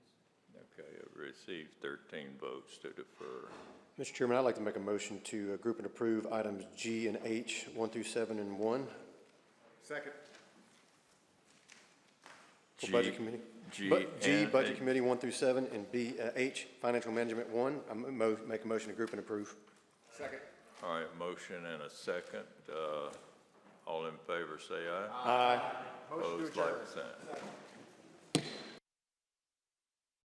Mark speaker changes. Speaker 1: received 13 votes to defer.
Speaker 2: Mr. Chairman, I'd like to make a motion to uh, group and approve items G and H, 1 through 7 and 1.
Speaker 3: Second.
Speaker 2: For
Speaker 1: G-
Speaker 2: Budget Committee.
Speaker 1: G
Speaker 2: Bu- G,
Speaker 1: and
Speaker 2: Budget
Speaker 1: H.
Speaker 2: Committee, 1 through 7, and B, uh, H, Financial Management, 1. I mo- make a motion to group and approve.
Speaker 3: Second.
Speaker 1: All right, motion and a second. Uh, All in favor, say aye.
Speaker 2: Aye.
Speaker 3: Motion to
Speaker 1: Opposed,
Speaker 3: adjourn.
Speaker 1: like sign.